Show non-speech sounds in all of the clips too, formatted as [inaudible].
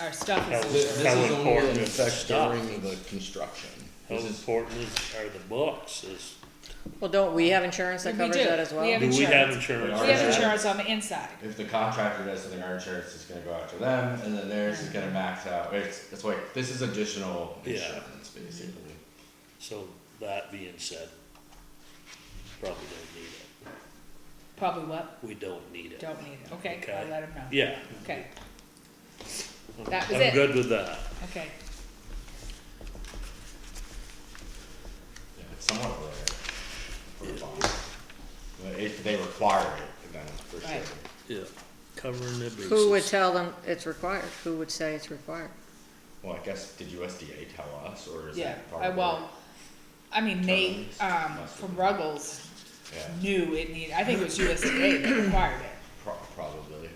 our stuff That is. This older. was- How is only important in is effect stuff? during the construction. How This is- important is, are the books, is, Well, don't we have insurance that We covers do. that as well? We have do we have insurance. insurance? We for have that? insurance on the inside. If the contractor does something, our insurance is gonna go out to them, and then theirs is gonna max out, it's, it's like, this is additional Yeah. insurance, basically. So, that being said, probably don't need it, Probably what? we don't need it. Don't need it. Okay, I'll Okay. let him know. Yeah. Okay, I'm- That was I'm it. good with that, okay. Yeah, it's somewhat rare for a bond. But if they require it, then for sure. Right. yeah, covering the bases. Who would tell them it's required? Who would say it's required? Well, I guess, did USDA tell us, or is Yeah, that part I, of it? well, I mean, Nate, Terms, um, must from be. Ruggles Yeah, knew it needed, I think it was USDA that required it, pro- probably,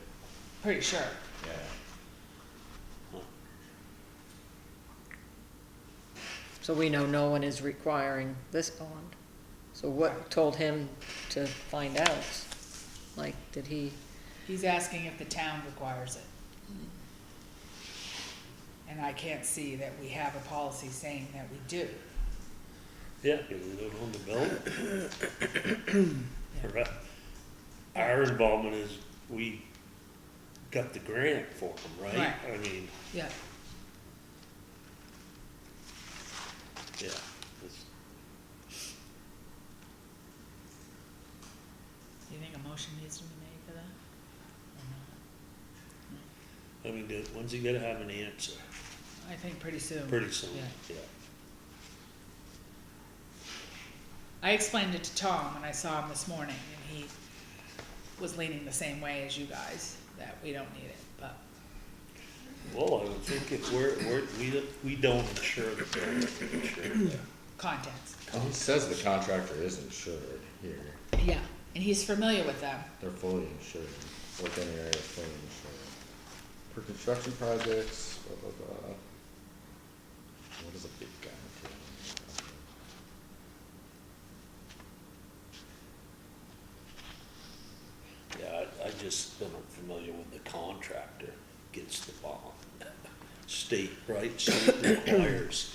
pretty sure. yeah. So we know no one is requiring this bond. So what told him to find out? Like, did he, He's asking if the town requires it. And I can't see that we have a policy saying that we do. Yeah, because we don't own the building. [coughs] Right. Our involvement is, we got the grant for them, right? Right. I mean, Yeah. yeah. it's- Do you think a motion needs to be made for that? Or I mean, do- when's he gonna have an answer? not? I think pretty soon. Pretty soon, Yeah. yeah. I explained it to Tom when I saw him this morning, and he was leaning the same way as you guys, that we don't need it, but, Well, I would think if we're, we're, we, don't- we don't insure the building, we insure that. contents. Well, it Oh, says the contractor is insured here, Yeah, and he's familiar with them. they're fully insured, within the area is fully insured. For construction projects, blah, blah, blah. What is a big guarantee? Yeah, I, I just been familiar with the contractor gets the bond. State, right, state requires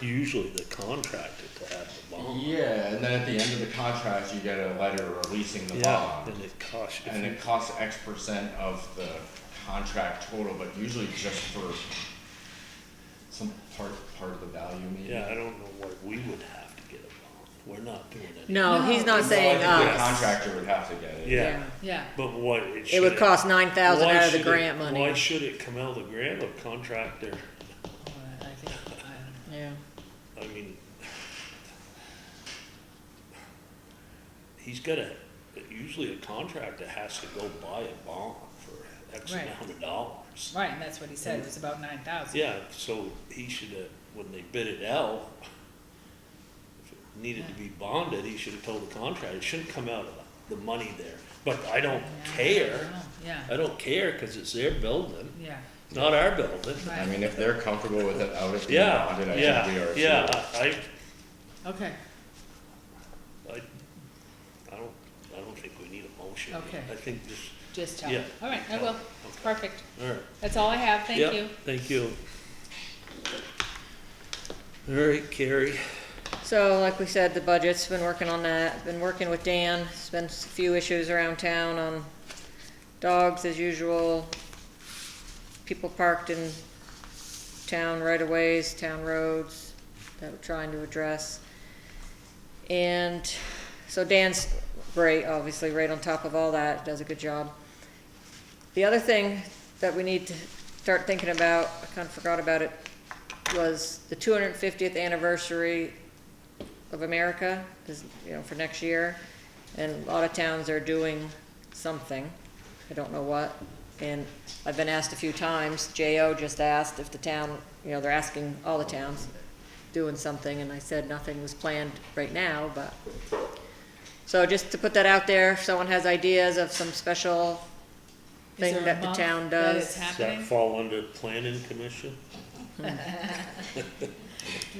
usually the contractor to have the bond. Yeah, and then at the end of the contract, you get a letter releasing the Yeah, bond. and it costs, if And you it costs X percent of the contract total, but usually just for some part, part of the value maybe. Yeah, I don't know what we would have to get involved. We're not doing it. no, he's No. not So I saying uh, think The us. contractor would have to get it. Yeah, Yeah, but what it should. It would cost nine thousand why out of the should it- grant Why money. should it come out of the grant of contractor? but I think, I don't know. Yeah. I mean. He's gotta, usually a contractor has to go buy a bond for X Right. amount of dollars. Right, and that's what he said, it was about nine thousand. Yeah, so he should have, when they bid it out, if it needed to be bonded, he should have told the contractor, it shouldn't come out of the money there. But I don't care, Yeah, Uh, I don't care, cause it's their building, yeah, not our building. I right, mean, if they're comfortable with it out of the Yeah, bonded, I think we yeah, are. yeah, I, okay, I, I don't, I don't think we need a motion. Okay. I think just, just tell him. Yeah. All right, I will, perfect, all right. that's all I have, thank Yep, you. Thank you. All right, Carrie. So like we said, the budget's been working on that, been working with Dan, there's been a few issues around town on dogs as usual. People parked in town right of ways, town roads that we're trying to address. And so Dan's great, obviously, right on top of all that, does a good job. The other thing that we need to start thinking about, I kind of forgot about it, was the two hundred and fiftieth anniversary of America is, you know, for next year. And a lot of towns are doing something, I don't know what. And I've been asked a few times, J.O. just asked if the town, you know, they're asking all the towns doing something, and I said nothing was planned right now, but. So just to put that out there, if someone has ideas of some special Is thing there a that the month town that does. it's Does that happening? fall under planning commission? We [laughs]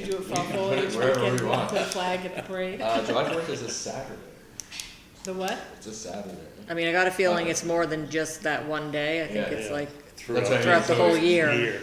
do a fall can put it foliage, we wherever can we want. put a flag at the parade. Uh, July fourth is a Saturday, The what? it's a Saturday. I mean, I got a feeling it's more than just that one day, I think Yeah, it's yeah. like throughout. That's what I mean. Throughout the whole year.